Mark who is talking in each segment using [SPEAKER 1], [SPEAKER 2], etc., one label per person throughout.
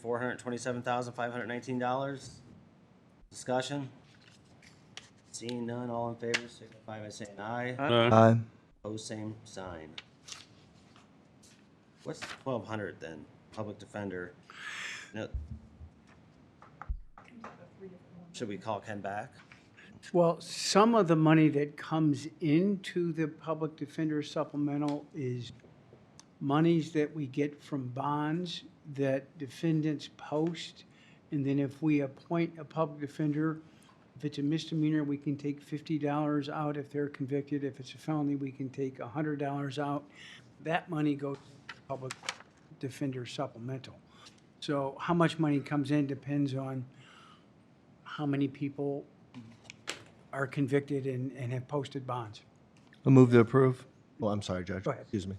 [SPEAKER 1] four hundred twenty-seven thousand, five hundred nineteen dollars. Discussion? Seeing none, all in favor, signify by saying aye.
[SPEAKER 2] Aye.
[SPEAKER 1] Opposed, same sign. What's twelve hundred then? Public defender? No. Should we call Ken back?
[SPEAKER 3] Well, some of the money that comes into the public defender supplemental is monies that we get from bonds that defendants post. And then if we appoint a public defender, if it's a misdemeanor, we can take fifty dollars out if they're convicted. If it's a felony, we can take a hundred dollars out. That money goes to the public defender supplemental. So how much money comes in depends on how many people are convicted and, and have posted bonds.
[SPEAKER 2] I move to approve.
[SPEAKER 4] Oh,
[SPEAKER 2] Well, I'm sorry, Judge.
[SPEAKER 3] Go ahead.
[SPEAKER 2] Excuse me.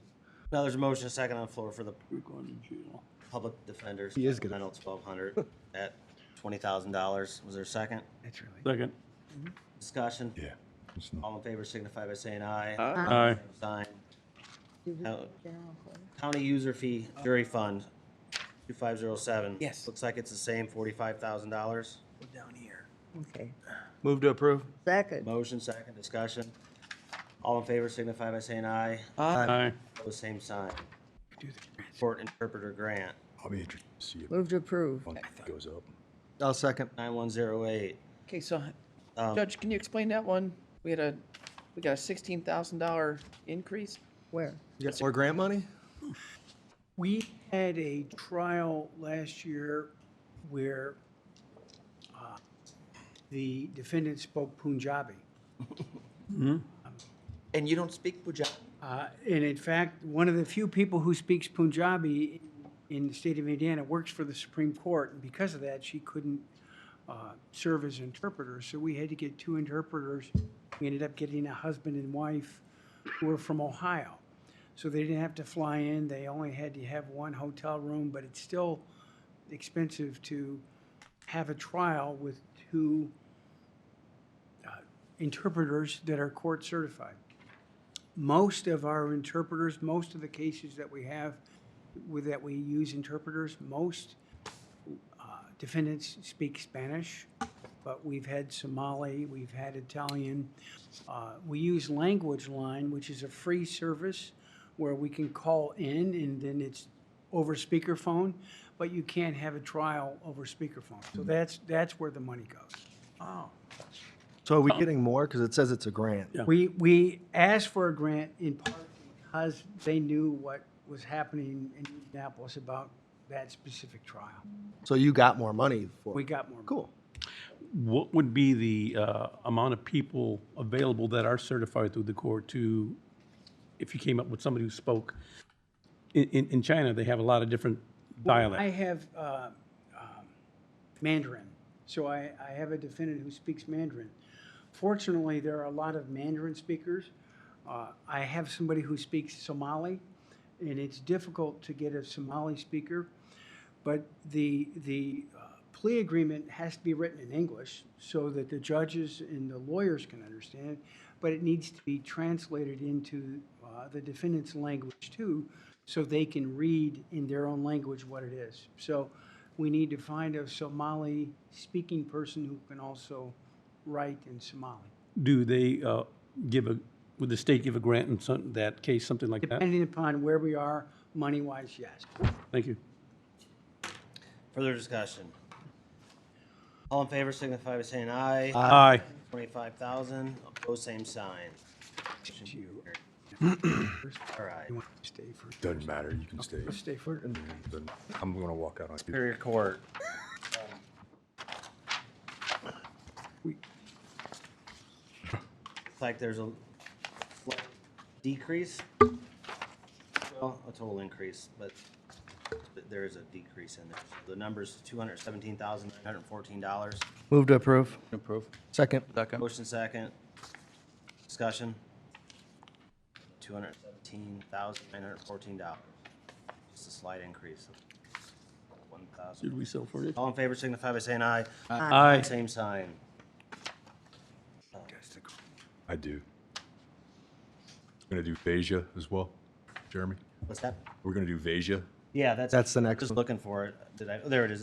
[SPEAKER 1] Now, there's a motion, a second on the floor for the
[SPEAKER 3] We're going to jail.
[SPEAKER 1] public defenders.
[SPEAKER 2] He is gonna-
[SPEAKER 1] Supplemental twelve hundred at twenty thousand dollars. Was there a second?
[SPEAKER 3] That's really.
[SPEAKER 5] Second.
[SPEAKER 1] Discussion?
[SPEAKER 4] Yeah. it's not-
[SPEAKER 1] All in favor signify by saying aye.
[SPEAKER 5] Aye.
[SPEAKER 1] Same Sign. Now, County user fee jury fund, two five zero seven.
[SPEAKER 3] Yes.
[SPEAKER 1] Looks like it's the same, forty-five thousand dollars.
[SPEAKER 3] Down here.
[SPEAKER 6] Okay.
[SPEAKER 2] Move to approve.
[SPEAKER 6] Second.
[SPEAKER 1] Motion, second, discussion. All in favor signify by saying aye.
[SPEAKER 5] Aye.
[SPEAKER 1] Opposed, same sign.
[SPEAKER 3] Do the-
[SPEAKER 1] Court interpreter grant,
[SPEAKER 4] I'll be interested to see if
[SPEAKER 6] Move to approve.
[SPEAKER 4] it goes up.
[SPEAKER 2] I'll second.
[SPEAKER 1] nine one zero eight.
[SPEAKER 7] Okay, so Judge, can you explain that one? We had a, we got a sixteen thousand dollar increase?
[SPEAKER 6] Where?
[SPEAKER 2] You got more grant money?
[SPEAKER 3] We had a trial last year where uh, the defendant spoke Punjabi.
[SPEAKER 7] Hmm? And you don't speak Punjabi?
[SPEAKER 3] Uh, And in fact, one of the few people who speaks Punjabi in the state of Indiana works for the Supreme Court. And because of that, she couldn't uh, serve as interpreter. So we had to get two interpreters. We ended up getting a husband and wife who were from Ohio. So they didn't have to fly in. They only had to have one hotel room, but it's still expensive to have a trial with two uh, interpreters that are court certified most of our interpreters, most of the cases that we have with, that we use interpreters, most uh, defendants speak Spanish, but we've had Somali, we've had Italian. Uh, We use Language Line, which is a free service where we can call in and then it's over speakerphone, but you can't have a trial over speakerphone. So that's, that's where the money goes.
[SPEAKER 2] So are we getting more? Because it says it's a grant.
[SPEAKER 5] Yeah.
[SPEAKER 3] We, we asked for a grant in part because they knew what was happening in Indianapolis about that specific trial.
[SPEAKER 2] So you got more money for
[SPEAKER 3] We
[SPEAKER 2] it.
[SPEAKER 3] got more.
[SPEAKER 2] Cool.
[SPEAKER 5] What would be the uh, amount of people available that are certified through the court to, if you came up with somebody who spoke? In, in, in China, they have a lot of different
[SPEAKER 3] I
[SPEAKER 5] dialects.
[SPEAKER 3] have uh, um, Mandarin, so I, I have a defendant who speaks Mandarin. Fortunately, there are a lot of Mandarin speakers. Uh, I have somebody who speaks Somali, and it's difficult to get a Somali speaker. But the, the uh, plea agreement has to be written in English so that the judges and the lawyers can understand, but it needs to be translated into uh, the defendant's language too, so they can read in their own language what it is. So we need to find a Somali-speaking person who can also write in Somali.
[SPEAKER 5] Do they uh, give a, would the state give a grant in some, that case, something like that?
[SPEAKER 3] Depending upon where we are, money-wise, yes.
[SPEAKER 5] Thank you.
[SPEAKER 1] Further discussion. All in favor signify by saying aye.
[SPEAKER 5] Aye.
[SPEAKER 1] Twenty-five thousand, opposed, same sign. All right.
[SPEAKER 3] You want to stay for,
[SPEAKER 4] Doesn't matter, you can stay.
[SPEAKER 3] stay for,
[SPEAKER 4] Doesn't- I'm gonna walk out on you.
[SPEAKER 1] Superior Court,
[SPEAKER 3] we,
[SPEAKER 1] looks like there's a slight decrease. Well, a total increase, but but there is a decrease in there. The number's two hundred seventeen thousand, nine hundred fourteen dollars.
[SPEAKER 2] Move to approve.
[SPEAKER 8] Approve.
[SPEAKER 2] Second.
[SPEAKER 8] Second.
[SPEAKER 1] Motion second. Discussion. Two hundred seventeen thousand, nine hundred fourteen dollars. Just a slight increase of one
[SPEAKER 5] Did
[SPEAKER 1] thousand.
[SPEAKER 5] we sell for it?
[SPEAKER 1] All in favor signify by saying aye.
[SPEAKER 5] Aye.
[SPEAKER 1] Same sign.
[SPEAKER 4] I do. Gonna do Vasia as well, Jeremy.
[SPEAKER 1] What's that?
[SPEAKER 4] We're gonna do Vasia.
[SPEAKER 1] Yeah, that's.
[SPEAKER 2] That's the next
[SPEAKER 1] Just
[SPEAKER 2] one.
[SPEAKER 1] looking for it. Did I, oh, there it is.